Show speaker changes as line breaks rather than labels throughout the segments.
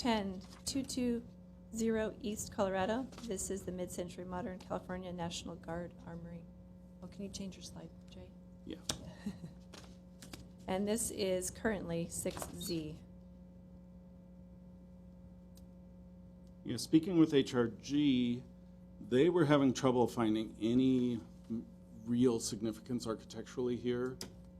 10, 220 East Colorado. This is the Mid-Century Modern California National Guard Armory. Oh, can you change your slide, Jay?
Yeah.
And this is currently 6Z.
Yeah, speaking with HRG, they were having trouble finding any m- real significance architecturally here,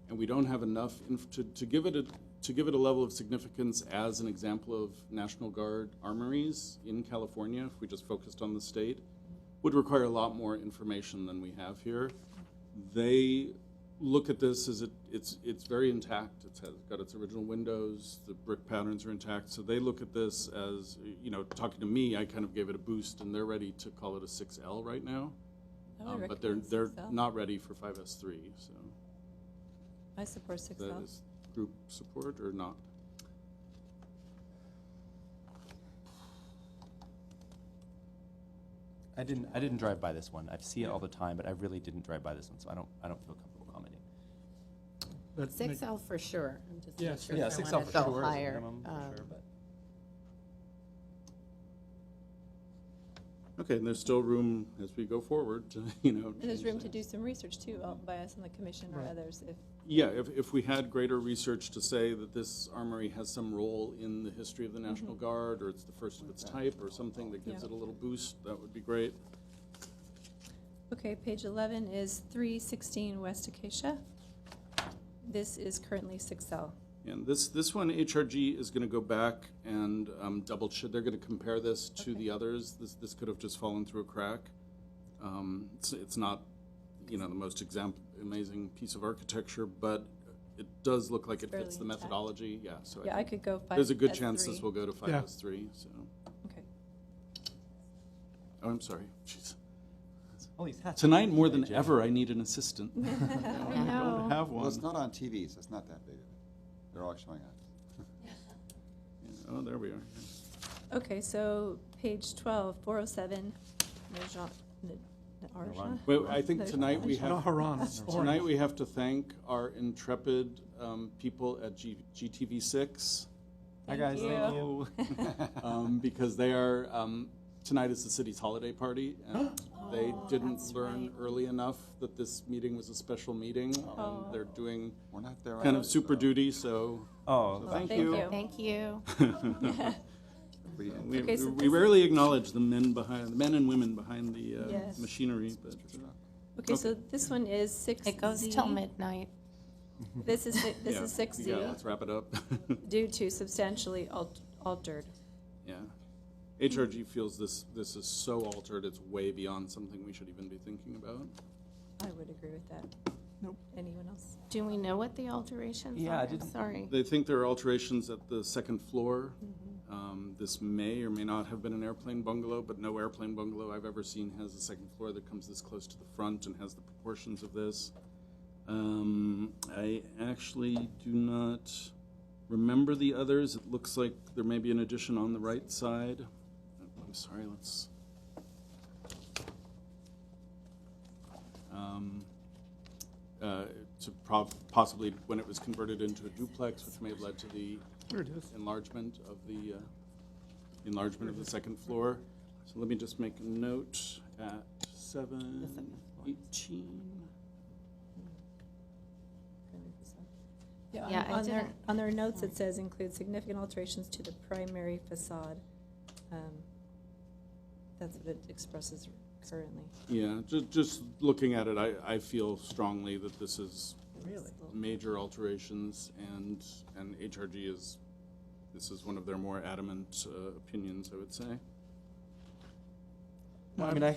and we don't have enough inf- to, to give it a, to give it a level of significance as an example of National Guard armories in California, if we just focused on the state, would require a lot more information than we have here. They look at this as it, it's, it's very intact. It's has got its original windows, the brick patterns are intact. So they look at this as, you know, talking to me, I kind of gave it a boost and they're ready to call it a 6L right now.
Oh, I would
Um, But they're,
recommend
they're
6L.
not ready for 5S3, so
I support
that
6L.
is group support or not.
I didn't, I didn't drive by this one. I see it all the time, but I really didn't drive by this one, so I don't, I don't feel comfortable commenting.
But Nick-
Six L for sure. I'm just
Yeah,
not sure
Yeah,
if I
six
want
off
to
for
go
sure is a
higher.
minimum,
Um,
for sure, but.
Okay, and there's still room as we go forward to, you know.
And there's
change
room
that.
to do some research too, uh, by us on the commission or others if
Yeah, if, if we had greater research to say that this armory has some role in the history of the National Guard, or it's the first of its type, or something that gives
Mm-hmm. Yeah.
it a little boost, that would be great.
Okay, page 11 is 316 West Acacia. This is currently 6L.
And this, this one, HRG is gonna go back and um, double check, they're gonna compare this to the others. This, this could have just fallen through a crack. Um, It's, it's not, you know, the most exam, amazing piece of architecture, but it does look like it
Fairly
fits the
intact.
methodology, yeah, so
Yeah,
I
I
think
could go 5.
there's a good
as
chance
three.
this will go to
Yeah.
five S three, so.
Okay.
Oh, I'm sorry, jeez.
All these hats.
Tonight, more than
Jay.
ever, I need an assistant. I
know.
don't have
Well, it's
one.
not on TV, so it's not that big of a, they're all showing up.
Oh, there we are.
Okay, so page 12, 407 Najan- N- Naranja.
Naranja.
Well, I think tonight we
No,
have,
Haran, it's
tonight
orange.
we have to thank our intrepid um, people at G- GTV6,
Hi, guys.
Thank
Thank
you.
you.
um, because they are, um, tonight is the city's holiday party, and they
Oh,
didn't learn early enough that this meeting was a special meeting,
Oh.
and they're doing
We're not there.
kind
either,
of super
so
duty, so
Oh,
thank
thank
you.
you.
Thank you.
we didn't
We
Okay, so
we
this-
rarely acknowledge the men behind, the men and women behind the uh,
Yes.
machinery, but.
finish up.
Okay, so this one is 6Z.
It goes till midnight.
This is, si- this
Yeah,
is
Yeah,
6Z
let's wrap it up.
due to substantially al- altered.
Yeah. HRG feels this, this is so altered, it's way beyond something we should even be thinking about.
I would agree with that.
Nope.
Anyone else?
Do we know what the alterations are?
Yeah, I
I'm
didn't-
Sorry.
They think there are alterations at the second floor. Um, This may or may not have been an airplane bungalow, but no airplane bungalow I've ever seen has a second floor that comes this close to the front and has the proportions of this. Um, I actually do not remember the others. It looks like there may be an addition on the right side. Oh, I'm sorry, let's. Um, uh, to prob- possibly when it was converted into a duplex, which may have led to the
There it is.
enlargement of the, uh, enlargement of the second floor. So let me just make a note at seven eighteen.
Yeah,
Yeah,
on-
I
on their,
didn't-
on their notes, it says include significant alterations to the primary facade. Um, That's what it expresses currently.
Yeah, ju- just looking at it, I, I feel strongly that this is
Really?
major alterations and, and HRG is, this is one of their more adamant, uh, opinions, I would say.
Well, I mean, I, I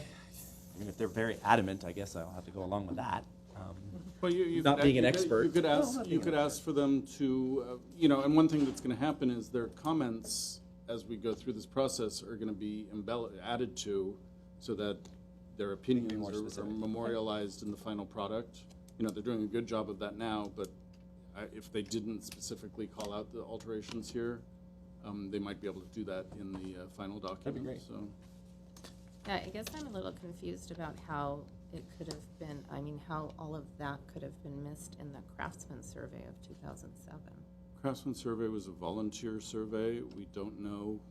mean, if they're very adamant, I guess I'll have to go along with that. Um,
Well, you, you.
Not
could-
being an
you could-
expert.
You could
No, I'm
ask,
not
you
being an
could ask for them to, uh, you know, and one thing that's gonna happen is their comments as we go through this process are gonna be embellished, added to, so that their
more
opinions are- are
specific.
memorialized in the final product. You know, they're doing a good job of that now, but I- if they didn't specifically call out the alterations here, um, they might be able to do that in the uh, final
be
document,
great.
so.
Yeah, I guess I'm a little confused about how it could have been, I mean, how all of that could have been missed in the craftsman survey of 2007.
Craftsman survey was a volunteer survey. We don't know